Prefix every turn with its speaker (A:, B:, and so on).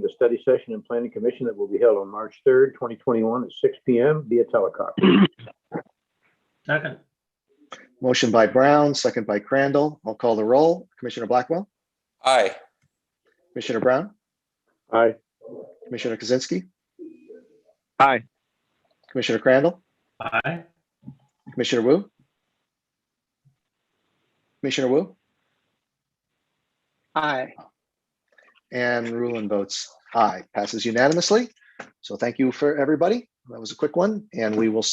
A: the study session and planning commission that will be held on March 3rd, 2021 at 6 PM via teleconference.
B: Second,
C: Motion by Brown, second by Crandall. I'll call the roll. Commissioner Blackwell,
D: Aye.
C: Commissioner Brown,
A: Aye.
C: Commissioner Kozinski,
E: Aye.
C: Commissioner Crandall,
B: aye.
C: Commissioner Wu? Commissioner Wu
E: Aye.
C: and Rulon votes aye, passes unanimously. So thank you for everybody. That was a quick one and we will see.